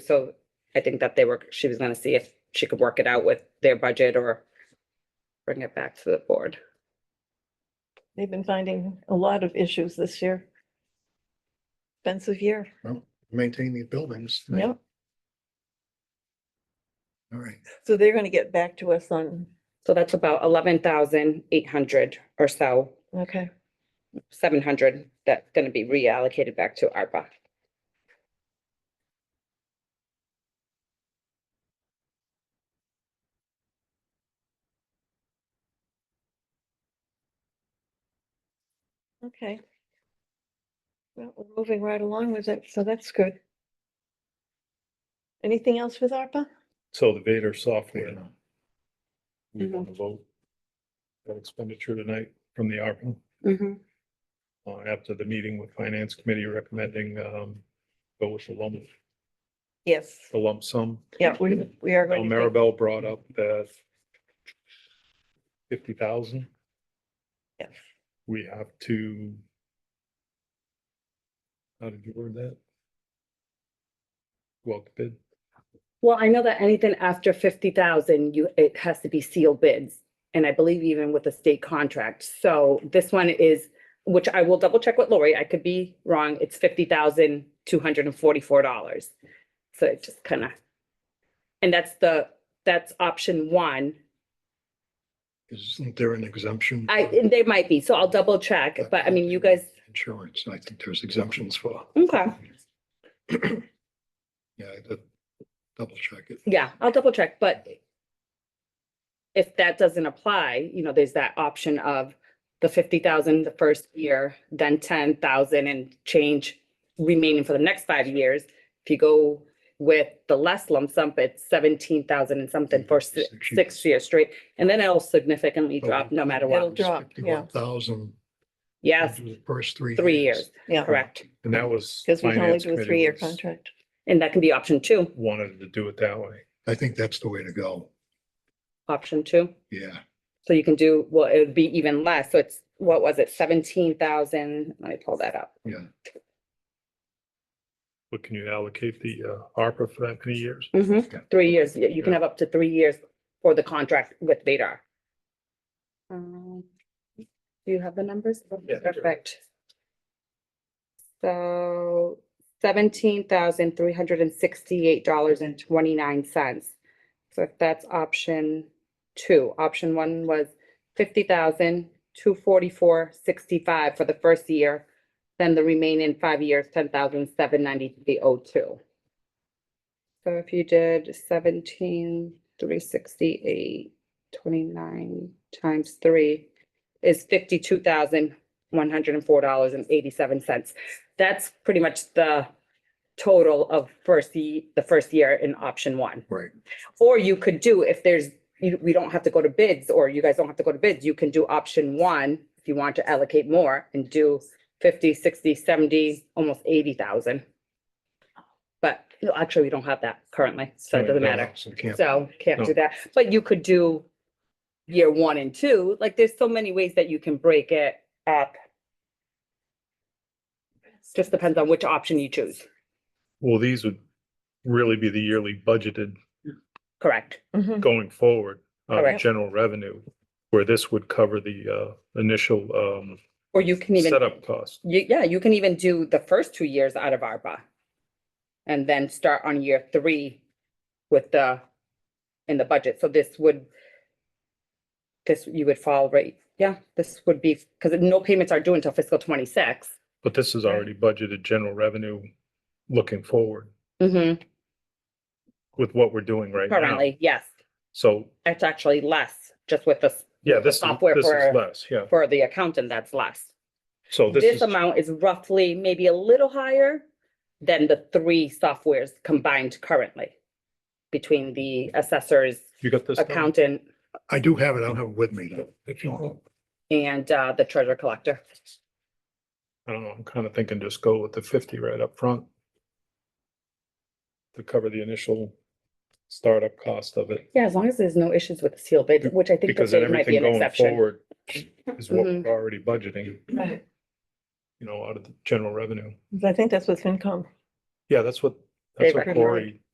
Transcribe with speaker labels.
Speaker 1: so I think that they were, she was gonna see if she could work it out with their budget or bring it back to the board.
Speaker 2: They've been finding a lot of issues this year. Expensive year.
Speaker 3: maintain these buildings.
Speaker 2: Yep.
Speaker 3: All right,
Speaker 2: So they're going to get back to us on,
Speaker 1: So that's about eleven thousand eight hundred or so,
Speaker 2: okay.
Speaker 1: seven hundred, that's gonna be reallocated back to ARPA.
Speaker 2: Okay. Well, we're moving right along with it, so that's good. Anything else with ARPA?
Speaker 4: So the Vader software,
Speaker 3: yeah,
Speaker 4: we want
Speaker 2: Mm-hmm.
Speaker 4: to vote that expenditure tonight from the ARPA,
Speaker 1: Mm-hmm.
Speaker 4: uh, after the meeting with Finance Committee recommending, um, go with the lump,
Speaker 2: Yes.
Speaker 4: the lump sum.
Speaker 2: Yeah, we, we are
Speaker 4: Now
Speaker 2: going to, take-
Speaker 4: Maribel brought up that fifty thousand,
Speaker 2: yes.
Speaker 4: we have to how did you word that? Go out to bid,
Speaker 1: Well, I know that anything after fifty thousand, you, it has to be sealed bids. And I believe even with a state contract. So this one is, which I will double check with Lori. I could be wrong. It's fifty thousand, two hundred and forty-four dollars. So it just kind of. And that's the, that's option one.
Speaker 3: isn't there an exemption?
Speaker 1: I,
Speaker 3: for
Speaker 1: and they might be, so I'll double check, but I mean, you guys,
Speaker 3: Insurance, I think there's exemptions for,
Speaker 1: okay,
Speaker 3: yeah, I did double check it.
Speaker 1: yeah, I'll double check, but if that doesn't apply, you know, there's that option of the fifty thousand the first year, then ten thousand and change remaining for the next five years. If you go with the less lump sum, it's seventeen thousand and something for si-
Speaker 3: Six years. Oh,
Speaker 1: six years straight, and then it'll significantly drop no matter
Speaker 2: It'll
Speaker 1: what.
Speaker 2: drop, yeah.
Speaker 3: Thousand.
Speaker 1: Yes,
Speaker 3: First three.
Speaker 1: three years,
Speaker 2: Yeah,
Speaker 1: correct,
Speaker 4: and that was.
Speaker 2: because we can only
Speaker 4: Finance
Speaker 2: do a
Speaker 4: Committee
Speaker 2: three-year
Speaker 4: was-
Speaker 2: contract.
Speaker 1: and that can be option two,
Speaker 4: Wanted to do it that way.
Speaker 3: I think that's the way to go,
Speaker 1: option two.
Speaker 3: yeah.
Speaker 1: So you can do, well, it would be even less. So it's, what was it, seventeen thousand? Let me pull that up.
Speaker 4: But can you allocate the uh, ARPA for that many years?
Speaker 3: Okay.
Speaker 1: Three years, y- you can have up to three years for the contract with Vadar. Um, Do you have the numbers?
Speaker 4: Yeah, I do.
Speaker 1: Perfect. So seventeen thousand three hundred and sixty-eight dollars and twenty-nine cents. So that's option two. Option one was fifty thousand two forty-four sixty-five for the first year. Then the remaining five years, ten thousand seven ninety-three oh two. So if you did seventeen, three sixty-eight, twenty-nine times three is fifty-two thousand, one hundred and four dollars and eighty-seven cents. That's pretty much the total of first, ye- the first year in option one.
Speaker 3: Right.
Speaker 1: Or you could do, if there's, you, we don't have to go to bids, or you guys don't have to go to bids, you can do option one if you want to allocate more and do fifty, sixty, seventy, almost eighty thousand. But, no, actually, we don't have that currently, so it doesn't matter.
Speaker 3: So can't-
Speaker 1: So can't
Speaker 4: No.
Speaker 1: do that, but you could do year one and two, like there's so many ways that you can break it up. Just depends on which option you choose,
Speaker 4: Well, these would really be the yearly budgeted
Speaker 1: correct?
Speaker 2: Mhm.
Speaker 4: going forward, uh,
Speaker 1: Mm-hmm. Correct.
Speaker 4: general revenue, where this would cover the, uh, initial, um,
Speaker 1: Or you can even,
Speaker 4: setup cost.
Speaker 1: you- yeah, you can even do the first two years out of ARPA. And then start on year three with the, in the budget, so this would. This, you would fall right, yeah, this would be, because no payments are due until fiscal twenty-six.
Speaker 4: But this is already budgeted general revenue looking forward
Speaker 1: Mm-hmm,
Speaker 4: with what we're doing right now.
Speaker 1: currently, yes.
Speaker 4: So,
Speaker 1: It's actually less, just with the,
Speaker 4: yeah, this is,
Speaker 1: Software
Speaker 4: this
Speaker 1: for-
Speaker 4: is less, yeah.
Speaker 1: for the accountant, that's less.
Speaker 4: So this
Speaker 1: This
Speaker 4: is,
Speaker 1: amount is roughly maybe a little higher than the three softwares combined currently between the assessors,
Speaker 4: you got this? down?
Speaker 1: accountant,
Speaker 3: I do have it, I don't have it with me though, if you want.
Speaker 1: and uh, the treasure collector.
Speaker 4: I don't know, I'm kind of thinking just go with the fifty right up front to cover the initial startup cost of it.
Speaker 1: Yeah, as long as there's no issues with the seal bid, which I think that
Speaker 4: Because then
Speaker 1: there might be
Speaker 4: everything
Speaker 1: an
Speaker 4: going
Speaker 1: exception.
Speaker 4: forward is what
Speaker 1: Mhm.
Speaker 4: we're already budgeting,
Speaker 2: Right.
Speaker 4: you know, out of the general revenue.
Speaker 2: I think that's what's income.
Speaker 4: Yeah, that's what,
Speaker 1: They
Speaker 4: that's what
Speaker 1: recommend.
Speaker 4: Lori